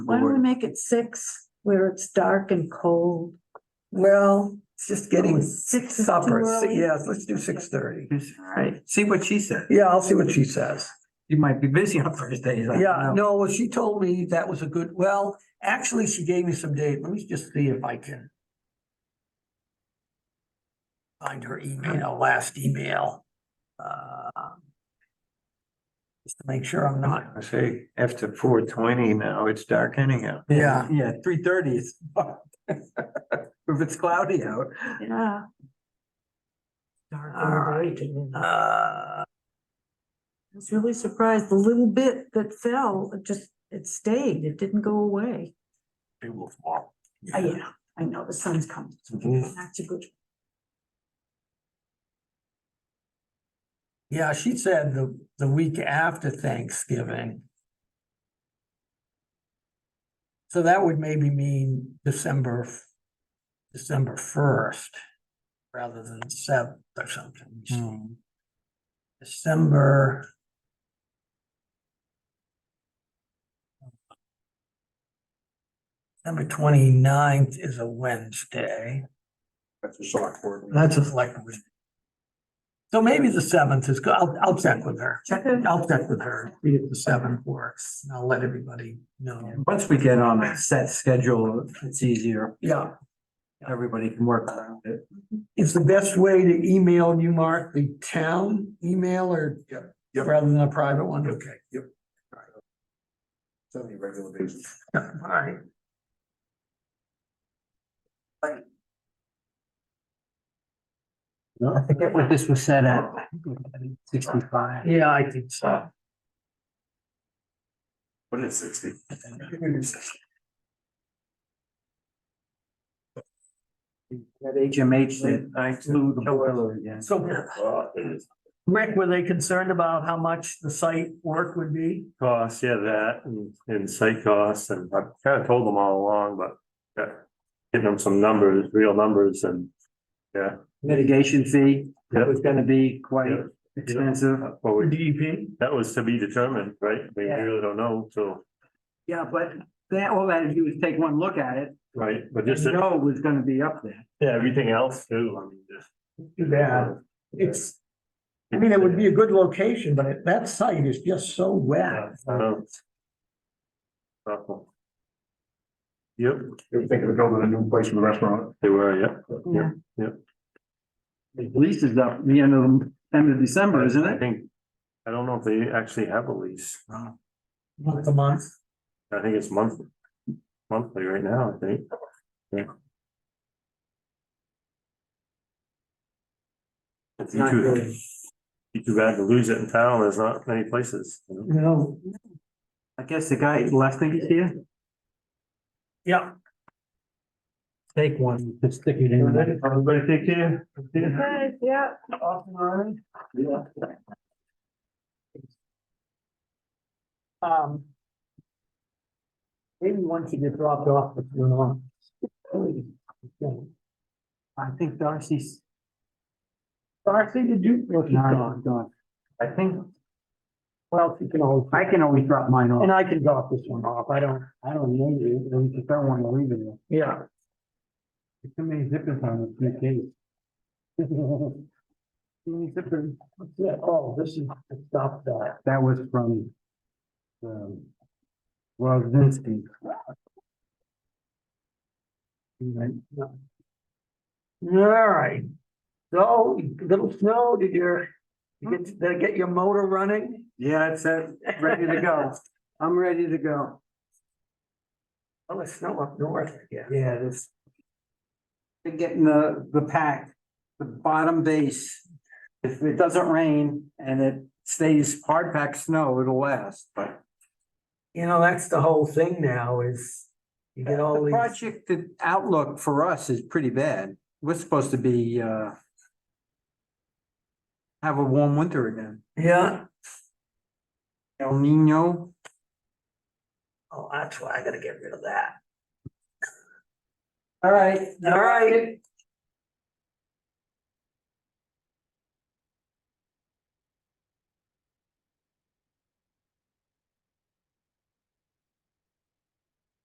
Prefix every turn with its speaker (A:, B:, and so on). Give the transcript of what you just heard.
A: Why don't we
B: board.
A: make it six where it's dark and cold? Oh,
C: Well, it's just getting
A: Six is too
C: supper.
A: early.
C: Yes, let's do six thirty.
A: All right.
B: See what she said.
C: Yeah, I'll see what she says.
B: You might be busy on Thursdays. I don't
C: Yeah,
B: know.
C: no, well, she told me that was a good, well, actually, she gave me some date. Let me just see if I can. Find her email, last email. Uh, Just to make sure I'm not,
D: I say, after four twenty now, it's dark anyhow.
C: yeah,
B: Yeah, three thirty is. If it's cloudy out.
C: All
A: Yeah. Dark
C: right.
A: and bright. I
C: uh,
A: was really surprised, the little bit that fell, it just, it stayed, it didn't go away.
C: it will fall.
A: Ah, Yeah, I know, the sun's coming.
C: Mhm.
A: That's a good.
C: Yeah, she said the, the week after Thanksgiving. So that would maybe mean December, f- December first, rather than seventh or something. Let me see.
B: Hmm.
C: December. December 29th is a Wednesday.
D: That's a short word.
C: That's a select. board. So maybe the seventh is, go- I'll, I'll check with her.
A: Check
C: I'll check with her, see if the seventh works, and I'll let everybody know.
B: Once we get on a set schedule, it's easier.
C: Yeah,
B: Everybody can work around it.
C: is the best way to email you, Mark, the town email or
D: Yep.
C: rather than a private one? Okay.
D: Yep. Seventy regular basis.
C: All right.
B: I forget what this was set at. Sixty-five.
C: Yeah, I think so.
D: What is sixty?
B: That HMH that I flew the boiler again.
C: So Rick, were they concerned about how much the site work would be?
D: Costs, yeah, that and, and site costs and I've kind of told them all along, but uh, getting them some numbers, real numbers and, yeah.
B: Mitigation fee,
D: Yeah.
B: that was gonna be quite
D: Yeah.
B: expensive.
D: Well, we-
C: DEP?
D: that was to be determined, right? We
B: Yeah.
D: really don't know, so,
B: Yeah, but that, all that to do is take one look at it,
D: right, but
B: and
D: just,
B: you know it was gonna be up there.
D: yeah, everything else too, I mean, just. uh,
C: Too bad. It's, I mean, it would be a good location, but it- that site is just so
D: Yeah,
C: wet.
D: I know. Awful. Yep. They were thinking of building a new place for the restaurant. They were, yep.
A: Yeah.
B: The lease is up, the end of, end of December, isn't
D: I
B: it?
D: think, I don't know if they actually have a lease.
C: Month to month.
D: I think it's monthly. Monthly right now, I think. Yeah. It'd be
B: not
D: too,
B: good.
D: be too bad to lose it in town. There's not many places. you know?
C: No.
B: I guess the guy, last thing he's here.
C: Yeah. Take one.
B: stick it
D: Everybody take care. Yeah.
A: Yeah.
C: Um. Maybe once you get dropped off, it's going on.
B: I think Darcy's.
C: Darcy, did you? No, she's gone.
B: Gone, gone.
C: I think. Well, you can always,
B: I can always drop mine
C: and
B: off.
C: I can drop this one off. I don't,
B: I don't need it, I just don't wanna leave it. there.
C: yeah.
B: There's Too many zippers on this new case. Too many zippers.
C: Yeah, oh, this is, stop that.
B: That was from. Um. Rosinski. Right.
C: All right. So, little snow, did your, you get, did I get your motor running?
B: Yeah, it's uh, ready to go. I'm ready to go.
C: Oh, it's snow up north, yeah.
B: Yeah, this. Been getting the, the pack, the bottom base. If it doesn't rain and it stays hard packed snow, it'll last, but.
C: You know, that's the whole thing now is you get all
B: The
C: these,
B: project, the outlook for us is pretty bad. We're supposed to be, uh. Have a warm winter again.
C: yeah.
B: El Nino,
C: Oh, that's why I gotta get rid of that.
B: all right.
C: All right,